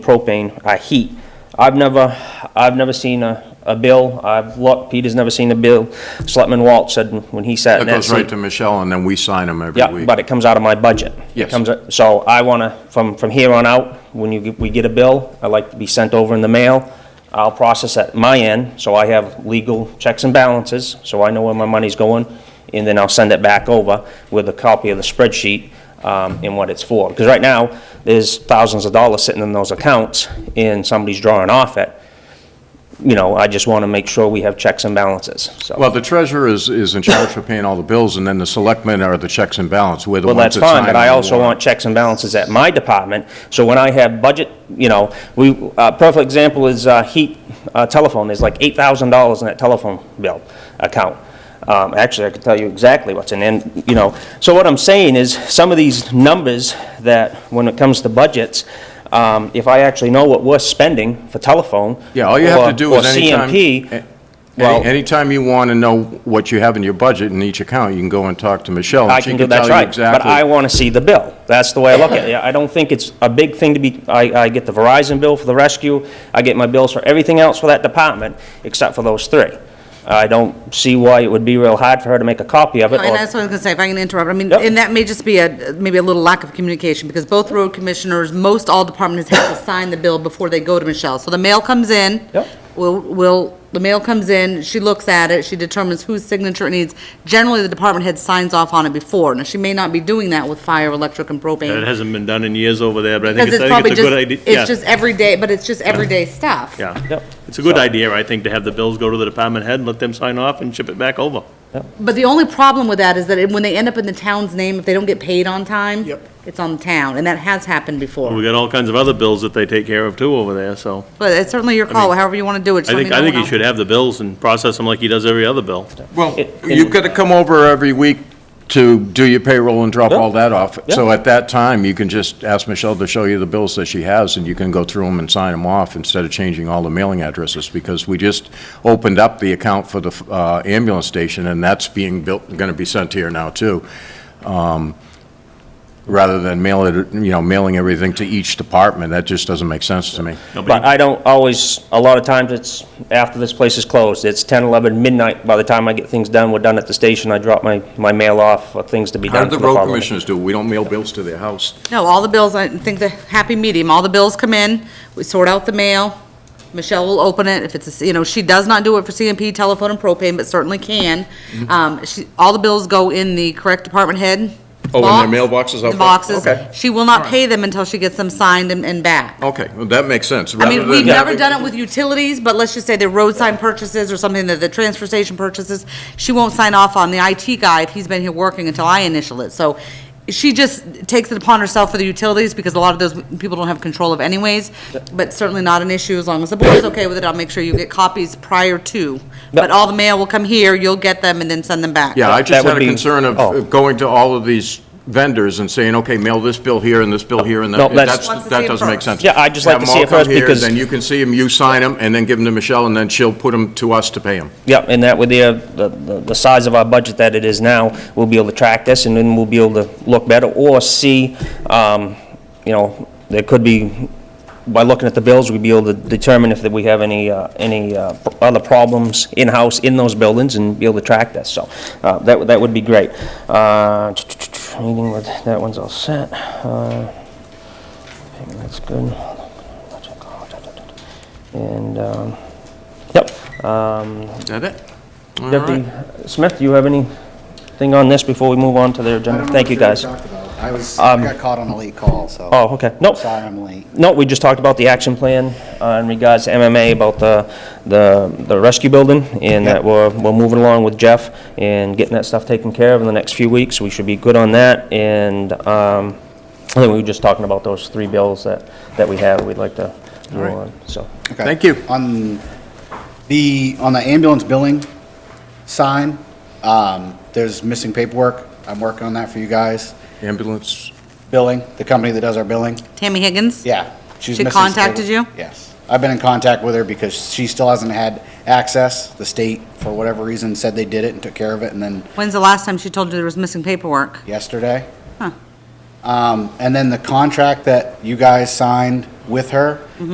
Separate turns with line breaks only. propane, uh, heat. I've never, I've never seen a, a bill, I've looked, Peter's never seen a bill. Selectman Walt said when he sat in
That
that
goes right
seat.
to Michelle, and then we sign them every
Yeah,
week.
but it comes out of my budget. It
Yes.
comes out- So I wanna, from, from here on out, when you, get- we get a bill, I like to be sent over in the mail. I'll process at my end, so I have legal checks and balances, so I know where my money's going. And then I'll send it back over with a copy of the spreadsheet, um, and what it's for. Because right now, there's thousands of dollars sitting in those accounts, and somebody's drawing off it. You know, I just wanna make sure we have checks and balances, so.
Well, the treasurer is, is in charge for paying all the bills, and then the selectmen are the checks and balance. We're the
Well, that's
ones that
fine,
sign
but
on
I
the
also want
warrant.
checks and balances at my department, so when I have budget, you know, we, a perfect example is uh, heat, uh, telephone, there's like $8,000 in that telephone bill account. Um, Actually, I could tell you exactly what's in, there, you know, so what I'm saying is, some of these numbers that, when it comes to budgets, um, if I actually know what we're spending for telephone.
Yeah, all you have
or-
to do is anytime.
Or CMP,
a-
well-
any- Anytime you want to know what you have in your budget in each account, you can go and talk to Michelle,
I
and she
can do,
can
that's
tell you
right. But I
exactly.
want to see the bill. That's the way I look at it. I don't think it's a big thing to be, I, I get the Verizon bill for the rescue, I get my bills for everything else for that department, except for those three. I don't see why it would be real hard for her to make a copy of it,
And
or-
that's what I was gonna say, if I can interrupt, I mean,
Yep.
and that may just be a, maybe a little lack of communication, because both road commissioners, most all departments have to sign the bill before they go to Michelle. So the mail comes in.
Yep.
Will, will, the mail comes in, she looks at it, she determines whose signature it needs. Generally, the department head signs off on it before. Now, she may not be doing that with fire, electric, and
It
propane.
hasn't been done in years over there, but I think
Because
it's,
it's
I
probably
think it's a good idea.
just,
Yeah,
it's just everyday, but it's just everyday stuff.
Yeah,
Yep.
it's a good idea, I think, to have the bills go to the department head, and let them sign off and ship it back over.
But the only problem with that is that it- when they end up in the town's name, if they don't get paid on time.
Yep.
It's on the town, and that has happened before.
We got all kinds of other bills that they take care of too over there, so.
But it's certainly your call, however you want to do it. Just
I
let me
think, I
know
think he
and I'll-
should have the bills and process them like he does every other bill.
Well,
It-
you've got to come over every week to do your payroll and drop
Yeah.
all that off. So
Yeah.
at that time, you can just ask Michelle to show you the bills that she has, and you can go through them and sign them off instead of changing all the mailing addresses, because we just opened up the account for the uh, ambulance station, and that's being built, going to be sent here now, too, Um, rather than mail it, you know, mailing everything to each department. That just doesn't make sense to me.
But I don't always, a lot of times it's after this place is closed, it's 10, 11, midnight, by the time I get things done, we're done at the station, I drop my, my mail off, for things to be
How
done
do
for
the
the
road
following.
commissioners do? We don't mail bills to their house.
No, all the bills, I think the happy medium, all the bills come in, we sort out the mail, Michelle will open it, if it's, a you know, she does not do it for CMP, telephone, and propane, but certainly can.
Mm-hmm.
Um, she, all the bills go in the correct department head.
Oh, in their
box,
mailboxes out
The
front? Okay.
boxes. She will not pay them until she gets them signed and, and back.
Okay, well, that makes sense.
I mean, we've never done it with utilities, but let's just say they're road sign purchases or something that the transfer station purchases. She won't sign off on the IT guy if he's been here working until I initial it. So she just takes it upon herself for the utilities because a lot of those people don't have control of anyways. But certainly not an issue as long as the board's okay with it. I'll make sure you get copies prior to. But all the mail will come here, you'll get them and then send them back.
Yeah, I
That
just
would
had a
be-
concern of-
oh.
of going to all of these vendors and saying, okay, mail this bill here and this bill here, and
No,
that,
that's-
that's-
Wants to see
that
'em
doesn't make
first.
sense.
Yeah, I'd just like
Have
to
'em
see
all
it first
come here,
because-
Then you can see them, you sign them, and then give them to Michelle, and then she'll put them to us to pay them.
Yep, and that with the, uh, the, the the size of our budget that it is now, we'll be able to track this, and then we'll be able to look better, or see, um, you know, there could be, by looking at the bills, we'd be able to determine if that we have any, uh, any uh, other problems in-house in those buildings, and be able to track this, so, uh, that, would- that would be great. Uh, Meeting with, that one's all set. Uh, That's good. And, um, yep, um,
Is that it? All
Deputy
right.
Smith, do you have anything on this before we move on to the
I don't
agenda?
know
Thank
what
you, guys. Um,
talked about. I was, I got caught on a late call, so.
Oh, okay. Nope.
Sorry I'm late.
No, we just talked about the action plan uh, in regards to MMA, about the, the, the rescue building, and that we're, we're moving along with Jeff and getting that stuff taken care of in the next few weeks. We should be good on that, and, um, I think we were just talking about those three bills that, that we have, we'd like to move
right.
on, so.
Okay.
Thank you.
On the, on the ambulance billing sign, um, there's missing paperwork. I'm working on that for you guys.
Ambulance,
Billing, the company that does our billing,
Tammy Higgins?
yeah. she's
She
missing some
contacted
paperwork.
you?
Yes. I've been in contact with her because she still hasn't had access. The state, for whatever reason, said they did it and took care of it, and then
When's the last time she told you there was missing paperwork?
yesterday.
Huh. Mm-hmm.
Um, And then the contract that you guys signed with her,